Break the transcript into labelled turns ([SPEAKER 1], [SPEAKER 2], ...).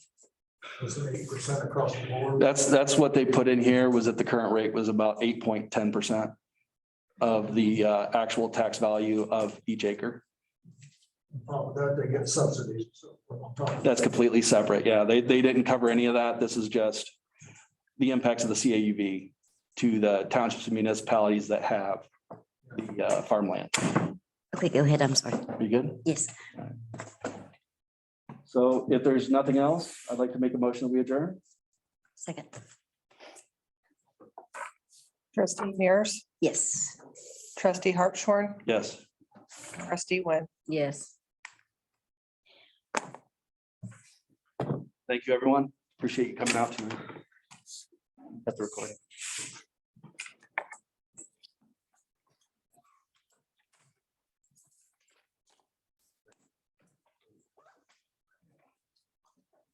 [SPEAKER 1] was it eight percent across the board?
[SPEAKER 2] That's, that's what they put in here was that the current rate was about eight point ten percent of the uh, actual tax value of each acre.
[SPEAKER 1] Oh, that they get subsidies, so what I'm talking.
[SPEAKER 2] That's completely separate. Yeah, they, they didn't cover any of that. This is just the impacts of the CAUV to the townships and municipalities that have the uh, farmland.
[SPEAKER 3] Okay, go ahead. I'm sorry.
[SPEAKER 2] You good?
[SPEAKER 3] Yes.
[SPEAKER 2] So if there's nothing else, I'd like to make a motion that we adjourn.
[SPEAKER 3] Second.
[SPEAKER 4] Trustee Mears,
[SPEAKER 3] Yes.
[SPEAKER 4] trustee Hartshorn,
[SPEAKER 2] Yes.
[SPEAKER 4] trustee Wynn.
[SPEAKER 3] Yes.
[SPEAKER 2] Thank you, everyone. Appreciate you coming out to. At the recording.